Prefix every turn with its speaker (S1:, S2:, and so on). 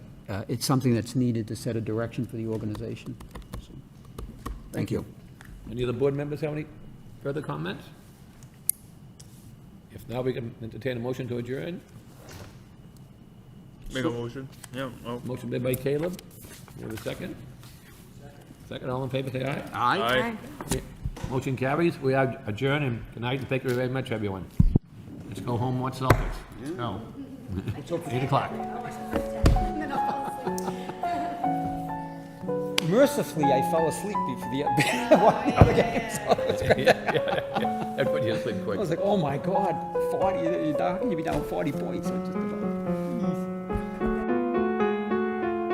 S1: uh, it's something that's needed to set a direction for the organization. So, Thank you.
S2: Any other board members have any further comments? If not, we can entertain a motion to adjourn.
S3: Make a motion? Yeah, oh.
S2: Motion made by Caleb. You have a second? Second, all in favor, say aye.
S1: Aye.
S3: Aye.
S2: Motion carries. We are adjourned and good night, and thank you very much, everyone. Let's go home, watch Celtics. Let's go. Eight o'clock.
S1: Mercifully, I fell asleep before the, other game. So it was great.
S2: Everybody has been quick.
S1: uh, I was like, oh my God, 40, you're down- you'd be down 40 points. I just-